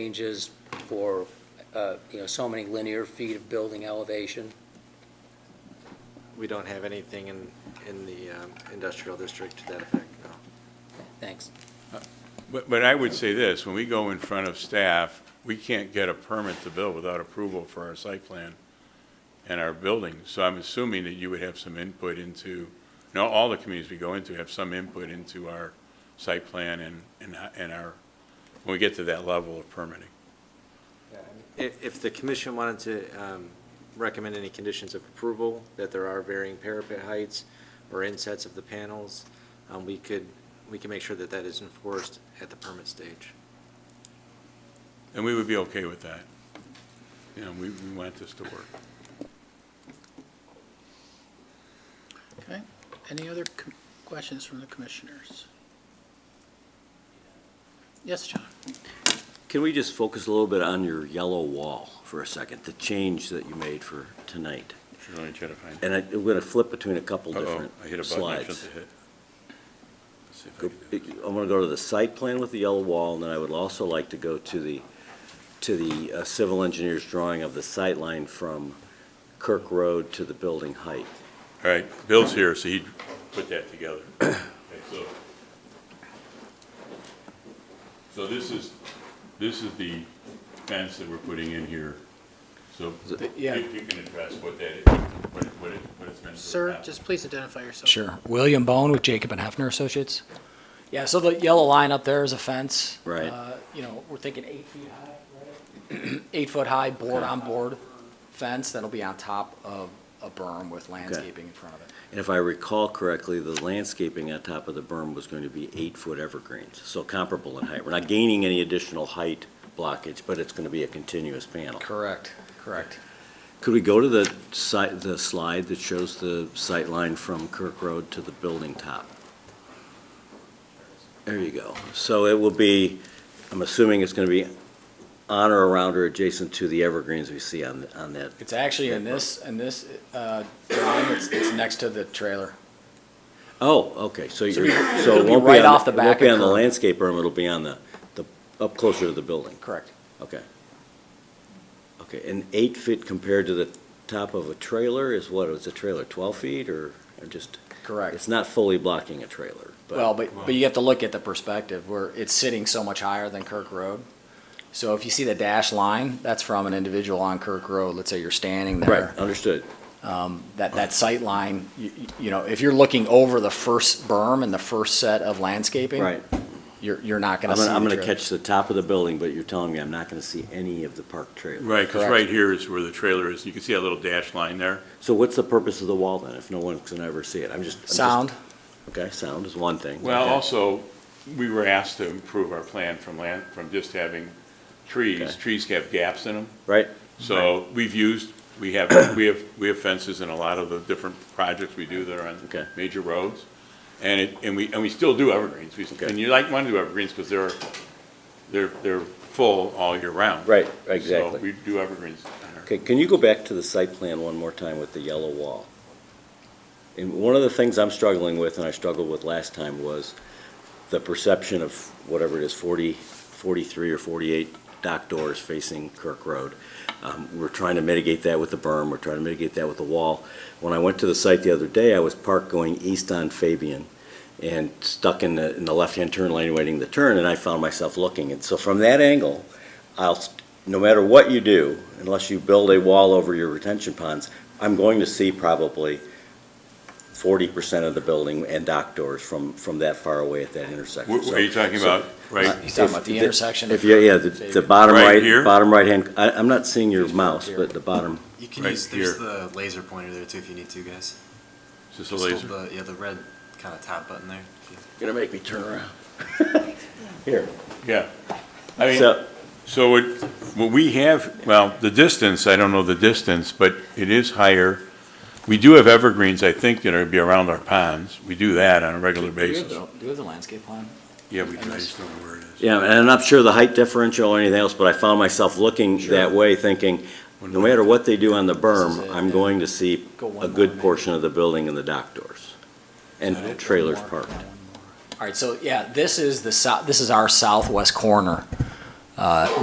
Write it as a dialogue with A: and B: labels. A: changes for, uh, you know, so many linear feet of building elevation.
B: We don't have anything in, in the um, industrial district to that effect, no.
A: Thanks.
C: But, but I would say this, when we go in front of staff, we can't get a permit to build without approval for our site plan and our building. So I'm assuming that you would have some input into, no, all the communities we go into have some input into our site plan and, and, and our, when we get to that level of permitting.
B: If, if the commission wanted to um, recommend any conditions of approval, that there are varying parapet heights or insets of the panels, um, we could, we can make sure that that is enforced at the permit stage.
C: And we would be okay with that. You know, we, we want this to work.
D: Okay, any other com- questions from the commissioners? Yes, John?
E: Can we just focus a little bit on your yellow wall for a second, the change that you made for tonight?
C: Sure, let me try to find
E: And I- I'm going to flip between a couple different
C: I hit a button I shouldn't
E: slides.
C: have hit. Let's see if I
E: Go-
C: can do this.
E: I'm going to go to the site plan with the yellow wall, and then I would also like to go to the, to the uh, civil engineer's drawing of the sight line from Kirk Road to the building height.
C: All right, Bill's here, so he put that together. Okay, so- So this is, this is the fence that we're putting in here, so if
D: yeah.
C: you can address what that is, what it, what it- what it's meant to.
D: Sir,
C: accomplish.
D: just please identify yourself.
F: Sure. William Bone with Jacob and Hefner Associates. Yeah, so the yellow line up there is a fence.
E: Right.
F: Uh, You know, we're thinking eight feet high, right? Eight foot high, board on board fence that'll be on top of a berm with landscaping in front of it.
E: And if I recall correctly, the landscaping on top of the berm was going to be eight-foot evergreens, so comparable in height. We're not gaining any additional height blockage, but it's going to be a continuous panel.
F: Correct, correct.
E: Could we go to the site, the slide that shows the sight line from Kirk Road to the building top? There you go. So it will be, I'm assuming it's going to be on or around or adjacent to the evergreens we see on, on that.
F: It's actually in this, in this uh, drawing, it's, it's next to the trailer.
E: Oh, okay, so you're, so
F: it'll
E: it
F: be
E: won't be
F: right
E: on,
F: off the
E: it won't
F: back
E: be
F: of
E: on the
F: Kirk.
E: landscape berm, it'll be on the, the, up closer to the building.
F: Correct.
E: Okay. Okay, and eight feet compared to the top of a trailer is what, is a trailer twelve feet or, or just?
F: Correct.
E: It's not fully blocking a trailer, but.
F: Well, but, but you have to look at the perspective where it's sitting so much higher than Kirk Road. So if you see the dash line, that's from an individual on Kirk Road. Let's say you're standing there.
E: Right, understood.
F: that, that sight line, you, you know, if you're looking over the first berm and the first set of landscaping.
E: Right.
F: You're, you're not gonna
E: I'm
F: see.
E: gonna, I'm
F: the
E: gonna
F: trail.
E: catch the top of the building, but you're telling me I'm not gonna see any of the parked trailer.
C: Right, because
F: Correct.
C: right here is where the trailer is, you can see that little dash line there.
E: So what's the purpose of the wall then, if no one's gonna ever see it? I'm just. I'm just-
F: Sound,
E: Okay, sound is one thing.
C: Well,
E: okay.
C: also, we were asked to improve our plan from land, from just having trees,
E: Okay.
C: trees have gaps in them.
E: Right,
C: So we've used, we have, we have, we have fences in a lot of the different projects we do that are
E: Okay.
C: on major roads. And it, and we, and we still do evergreens. We,
E: Okay.
C: and you like, want to do evergreens because they're, they're, they're full all year round.
E: right,
C: So
E: exactly.
C: we do evergreens. on our-
E: Okay, can you go back to the site plan one more time with the yellow wall? And one of the things I'm struggling with, and I struggled with last time, was the perception of whatever it is, 40, 43 or 48 dock doors facing Kirk Road. Um, We're trying to mitigate that with the berm, we're trying to mitigate that with the wall. When I went to the site the other day, I was parked going east on Fabian and stuck in the, in the left-hand turn lane waiting the turn, and I found myself looking. And so from that angle, I'll, s- no matter what you do, unless you build a wall over your retention ponds, I'm going to see probably forty percent of the building and dock doors from, from that far away at that intersection.
C: What- what are you
E: So-
C: talking
E: so-
C: about? Right,
F: He's talking about the
E: If- if-
F: intersection
E: If,
F: of-
E: you- yeah, the, the bottom
C: Right
E: right,
C: here?
E: bottom right hand, I, I'm not seeing your mouse, but the bottom,
G: You can
C: Right
G: use there's
C: here.
G: the laser pointer there too if you need to, guys.
C: is this a
G: Just
C: laser?
G: hold the yeah the red kind of top button there.
E: gonna make me turn around. Here,
C: Yeah. I mean,
E: so,
C: So what, what we have, well, the distance, I don't know the distance, but it is higher. We do have evergreens, I think, that are be around our ponds. We do that on a regular
F: do you have
C: basis.
F: the, do you have the landscape plan?
C: Yeah, we do, I just don't know where it is.
E: yeah, and I'm not sure the height differential or anything else, but I found myself looking that way, thinking, no matter what they do on the
F: This is
E: berm,
F: it,
E: I'm
F: yeah.
E: going to see
F: Go one
E: a
F: more,
E: good
F: maybe.
E: portion of the building and the dock doors, and trailers
F: One more,
E: parked.
F: yeah, one more. All right, so, yeah, this is the sou, this is our southwest corner. Uh,